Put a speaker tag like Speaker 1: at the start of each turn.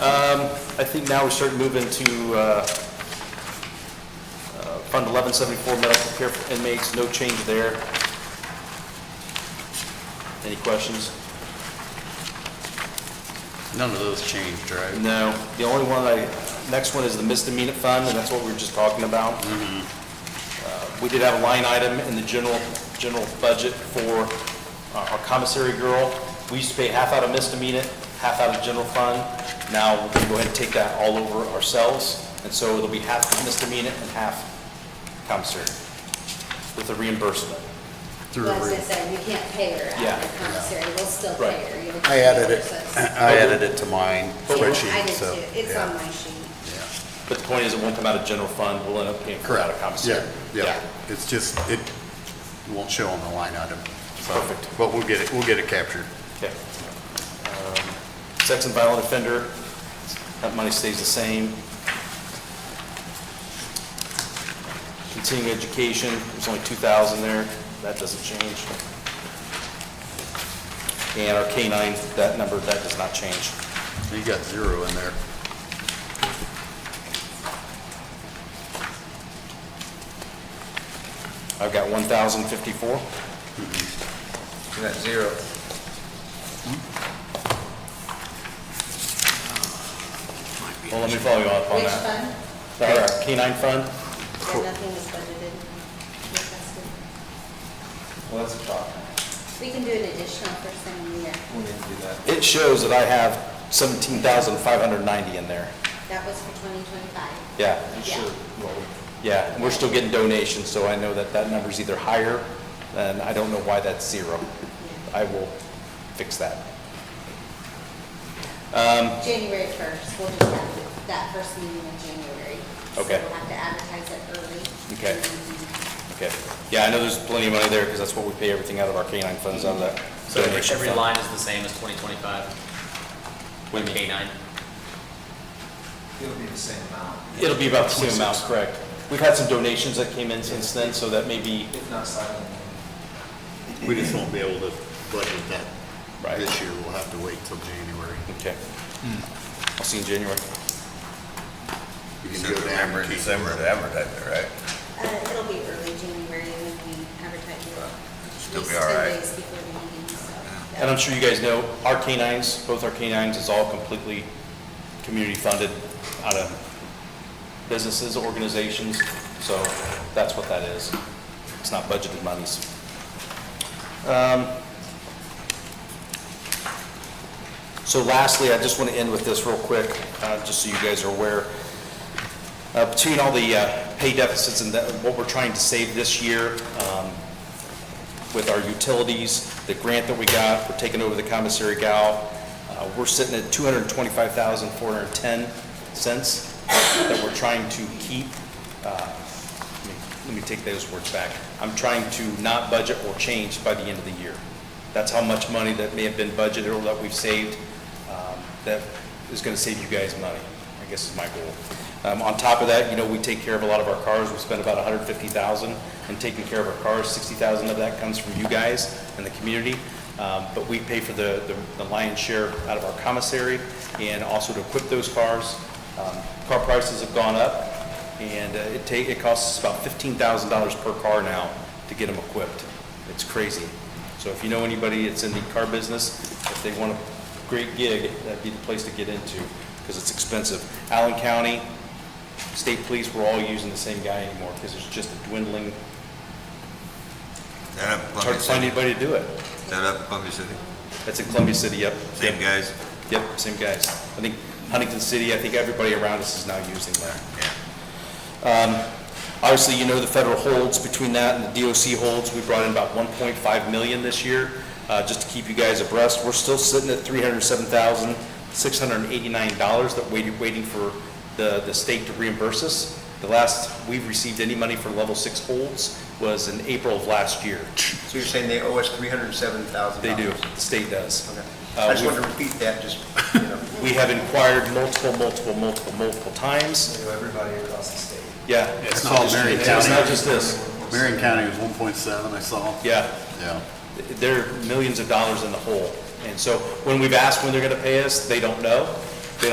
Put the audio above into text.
Speaker 1: Um, I think now we're starting to move into uh, uh, Fund 1174, medical care for inmates, no change there. Any questions?
Speaker 2: None of those changed, right?
Speaker 1: No. The only one I, next one is the misdemeanor fund, and that's what we were just talking about.
Speaker 2: Mm-hmm.
Speaker 1: Uh, We did have a line item in the general, general budget for uh, our commissary girl. We used to pay half out of misdemeanor, half out of general fund. Now, we're gonna go ahead and take that all over ourselves, and so it'll be half misdemeanor and half commissary with the reimbursement.
Speaker 2: Through
Speaker 3: Well, as I
Speaker 2: re-
Speaker 3: said, we can't pay her
Speaker 1: Yeah.
Speaker 3: out of commissary, we'll still
Speaker 1: Right.
Speaker 3: pay her. you know,
Speaker 2: I added it,
Speaker 3: so it's-
Speaker 2: I added it to mine
Speaker 3: I
Speaker 2: spreadsheet,
Speaker 3: did
Speaker 2: so.
Speaker 3: too, it's
Speaker 2: yeah,
Speaker 3: on my sheet.
Speaker 2: yeah.
Speaker 1: But the point is, it won't come out of general fund, we'll end up paying for it out of
Speaker 2: Correct,
Speaker 1: commissary.
Speaker 2: yeah, yeah. It's just, it won't show on the line item. so-
Speaker 1: Perfect.
Speaker 2: But we'll get it, we'll get it captured.
Speaker 1: Okay. Um, Sex and violent offender, that money stays the same. Continuing education, there's only 2,000 there, that doesn't change. And our canine, that number, that does not change.
Speaker 2: You got zero in there.
Speaker 1: I've got 1,054.
Speaker 4: You got zero.
Speaker 1: Well, let me follow you up on
Speaker 3: Which
Speaker 1: that.
Speaker 3: fund?
Speaker 1: Our canine fund?
Speaker 3: Yeah, nothing was budgeted. requested.
Speaker 4: Well, that's a problem.
Speaker 3: We can do an additional for some year,
Speaker 4: We need to do that.
Speaker 1: It shows that I have 17,590 in there.
Speaker 3: that was for twenty twenty-five.
Speaker 1: Yeah.
Speaker 4: You
Speaker 3: Yeah.
Speaker 4: should.
Speaker 1: Yeah, and we're still getting donations, so I know that that number's either higher, and I don't know why that's zero. I will fix that.
Speaker 3: January 1st, we'll just have that first meeting in January. So
Speaker 1: Okay.
Speaker 3: we'll have to advertise it early.
Speaker 1: Okay.
Speaker 3: And then-
Speaker 1: Okay. Yeah, I know there's plenty of money there, because that's what we pay everything out of our canine funds, out of that.
Speaker 5: So every
Speaker 1: donation
Speaker 5: every
Speaker 1: fund.
Speaker 5: line is the same as 2025? With K-9?
Speaker 4: It'll be the same amount,
Speaker 1: It'll be about the same amount, correct. We've had some donations that came in since then, so that may be,
Speaker 4: if not slightly. more.
Speaker 2: We just won't be able to budget that
Speaker 1: Right.
Speaker 2: this year. We'll have to wait till January.
Speaker 1: okay.
Speaker 5: Hmm.
Speaker 1: I'll see you in January.
Speaker 2: You can
Speaker 6: So
Speaker 2: go down and
Speaker 6: November,
Speaker 2: keep-
Speaker 6: December to advertise it, right?
Speaker 3: Uh, it'll be early January when we advertise it. At
Speaker 6: Still be
Speaker 3: least
Speaker 6: all
Speaker 3: 10
Speaker 6: right.
Speaker 3: days before the meeting, so.
Speaker 1: And I'm sure you guys know, our canines, both our canines, is all completely community-funded out of businesses, organizations, so that's what that is. It's not budgeted monies. Um, So lastly, I just want to end with this real quick, uh, just so you guys are aware. Uh, Between all the uh, pay deficits and that- what we're trying to save this year, um, with our utilities, the grant that we got, we're taking over the commissary gal. Uh, We're sitting at two hundred and twenty-five thousand, four hundred and ten cents that we're trying to keep. Uh, let me- Let me take those words back. I'm trying to not budget or change by the end of the year. That's how much money that may have been budgeted or that we've saved um, that is going to save you guys money, I guess is my goal. Um, On top of that, you know, we take care of a lot of our cars, we spend about $150,000 in taking care of our cars, $60,000 of that comes from you guys and the community, Um, but we pay for the the- the lion's share out of our commissary and also to equip those cars. Um, Car prices have gone up, and uh, it ta, it costs us about $15,000 per car now to get them equipped. It's crazy. So if you know anybody that's in the car business, if they want to great gig, that'd be the place to get into, because it's expensive. Allen County, state police, we're all using the same guy anymore, because it's just a dwindling,
Speaker 6: That up in
Speaker 1: it's hard
Speaker 6: Columbia
Speaker 1: to find
Speaker 6: City?
Speaker 1: anybody to do it.
Speaker 6: That up in Columbia City?
Speaker 1: That's in Columbia City, yep.
Speaker 6: Same
Speaker 1: Yep,
Speaker 6: guys?
Speaker 1: Yep, same guys. I think Huntington City, I think everybody around us is now using that. Um,
Speaker 6: Yeah.
Speaker 1: Obviously, you know the federal holds, between that and the DOC holds, we brought in about 1.5 million this year, uh, just to keep you guys abreast. We're still sitting at $307,689 that waited, waiting for the, the state to reimburse us. The last we've received any money for level six holds was in April of last year.
Speaker 7: So you're saying they owe us three hundred and seven thousand
Speaker 1: They
Speaker 7: dollars?
Speaker 1: do, the state does.
Speaker 7: Okay.
Speaker 1: Uh,
Speaker 7: I just
Speaker 1: we've-
Speaker 7: wanted to repeat that, just, you know,
Speaker 1: We have inquired multiple, multiple, multiple, multiple times.
Speaker 4: So everybody across the state.
Speaker 1: Yeah.
Speaker 2: It's not
Speaker 1: just-
Speaker 2: Marion
Speaker 1: It's not
Speaker 2: County.
Speaker 1: just this.
Speaker 2: Marion County was one point seven, I saw.
Speaker 1: Yeah.
Speaker 2: Yeah.
Speaker 1: they're millions of dollars in the hole. And so when we've asked when they're going to pay us, they don't know.